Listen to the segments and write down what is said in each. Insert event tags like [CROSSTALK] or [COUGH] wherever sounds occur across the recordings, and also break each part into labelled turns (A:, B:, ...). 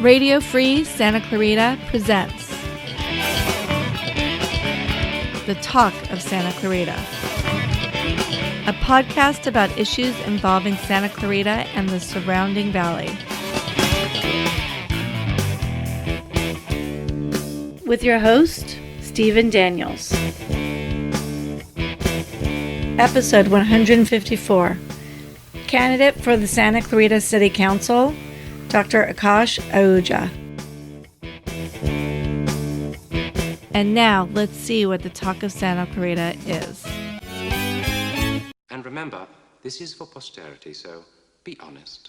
A: Radio Free Santa Clarita presents The Talk of Santa Clarita, a podcast about issues involving Santa Clarita and the surrounding valley.
B: with your host, Stephen Daniels. Episode 154 Candidate for the Santa Clarita City Council, Dr. Akash Ahuja.
A: And now let's see what the Talk of Santa Clarita is.
C: And remember, this is for posterity, so be honest.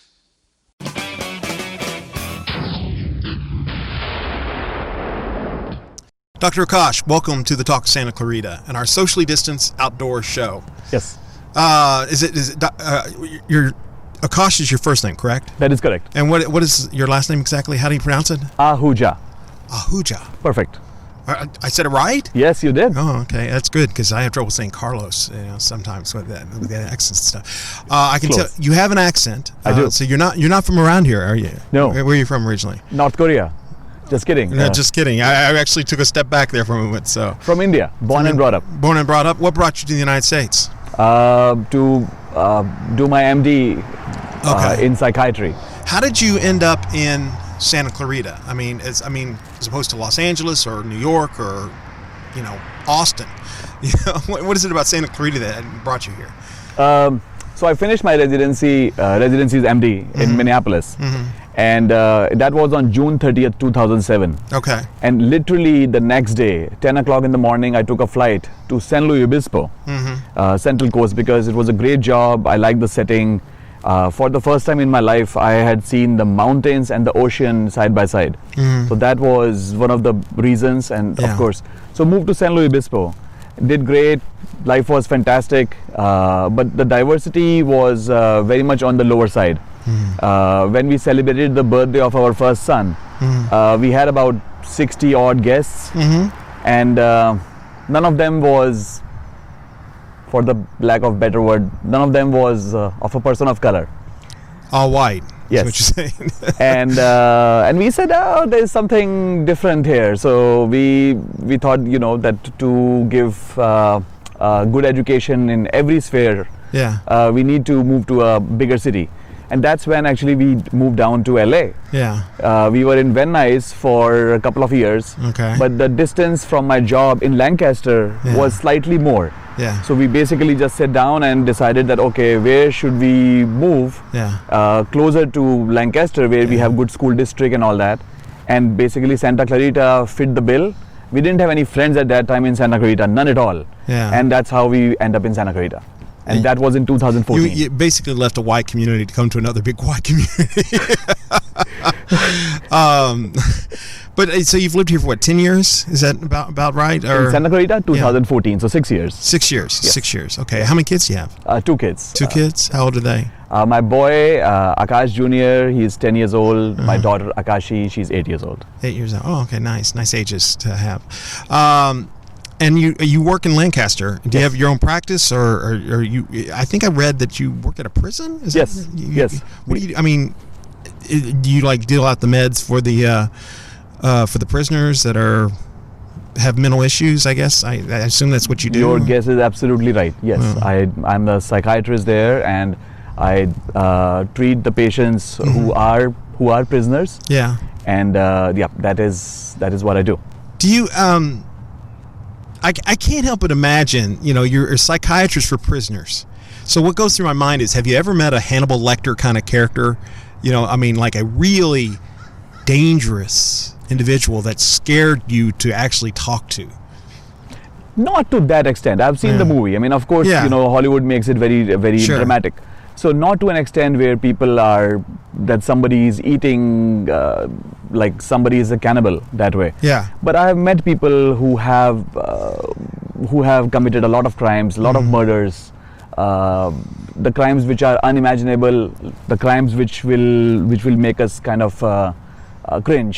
D: Dr. Akash, welcome to the Talk Santa Clarita and our socially distanced outdoor show.
E: Yes,
D: Uh, is it is it, doc- uh, your Akash is your first name, correct?
E: that is correct.
D: And what what is your last name exactly? How do you pronounce it?
E: Ahuja.
D: Ahuja.
E: Perfect.
D: I, I said it right.
E: Yes, you did.
D: Oh, okay, that's good because I have trouble saying Carlos, you know, sometimes with that with that accent stuff. Uh, I can
E: Close.
D: tell you have an accent.
E: I
D: uh,
E: do.
D: So you're not you're not from around here, are you?
E: No.
D: Where, where are you from originally?
E: North Korea. Just kidding.
D: No,
E: Uh,
D: just kidding. I, I actually took a step back there for a moment. So
E: from India, born and brought up.
D: born and brought up. What brought you to the United States?
E: Uh, to uh, do my MD uh,
D: Okay.
E: in psychiatry.
D: How did you end up in Santa Clarita? I mean, as I mean, as opposed to Los Angeles or New York or, you know, Austin. [LAUGHS] You know, what, what is it about Santa Clarita that brought you here?
E: So I finished my residency, uh, residency's MD in Minneapolis, and uh, that was on June 30th, 2007.
D: Okay.
E: And literally the next day, 10 o'clock in the morning, I took a flight to San Luis Obispo, uh, Central Coast, because it was a great job. I liked the setting. Uh, for the first time in my life, I had seen the mountains and the ocean side by side. So that was one of the reasons, and
D: Yeah.
E: of course. So moved to San Luis Obispo, did great. Life was fantastic, uh, but the diversity was uh, very much on the lower side. Uh, when we celebrated the birthday of our first son, uh, we had about 60 odd guests, and uh, none of them was, for the lack of better word, none of them was uh, of a person of color.
D: All white. Is
E: Yes.
D: what you're saying. [LAUGHS]
E: and uh, and we said, oh, there's something different here. So we we thought, you know, that to give uh, uh, good education in every sphere,
D: yeah.
E: uh, we need to move to a bigger city, and that's when actually we moved down to LA.
D: Yeah.
E: Uh, we were in Van Nuys for a couple of years,
D: Okay.
E: but the distance from my job in Lancaster
D: Yeah.
E: was slightly more.
D: Yeah.
E: So we basically just sat down and decided that okay, where should we move?
D: Yeah.
E: uh, closer to Lancaster, where we have good school district and all that, and basically Santa Clarita fit the bill. We didn't have any friends at that time in Santa Clarita, none at all,
D: Yeah.
E: and that's how we end up in Santa Clarita, and that was in
D: You,
E: 2014.
D: you basically left a white community to come to another big white community. [LAUGHS] um, but uh, so you've lived here for what, ten years? Is that about about right? Or
E: in Santa Clarita, 2014, so six years,
D: six years? Six years. Okay. How many kids do you have?
E: uh, two kids.
D: Two kids. How old are they?
E: Uh, my boy uh, Akash Jr. He's 10 years old. My daughter Akashi, she's eight years old.
D: Eight years old. Oh, okay, nice, nice ages to have. Um, and you you work in Lancaster. Do you have your own practice, or, or, or you? I think I read that you work at a prison. Is
E: Yes,
D: That, you-
E: yes.
D: What do you? I mean, i- do you like deal out the meds for the uh, uh, for the prisoners that are have mental issues? I guess I, I assume that's what you do.
E: Your guess is absolutely right. Yes, I, I'm a psychiatrist there, and I uh, treat the patients who are who are prisoners.
D: Yeah.
E: And uh, yeah, that is that is what I do.
D: Do you um? I, I can't help but imagine, you know, you're a psychiatrist for prisoners. So what goes through my mind is, have you ever met a Hannibal Lecter kind of character? You know, I mean, like a really dangerous individual that scared you to actually talk to.
E: Not to that extent. I've seen the movie. I mean, of course,
D: Yeah.
E: you know, Hollywood makes it very uh, very
D: Sure.
E: dramatic. So not to an extent where people are that somebody is eating uh, like somebody is a cannibal that way.
D: Yeah.
E: But I have met people who have uh, who have committed a lot of crimes, a lot
D: Mm-hmm.
E: of murders, uh, the crimes which are unimaginable, the crimes which will which will make us kind of uh, uh, cringe.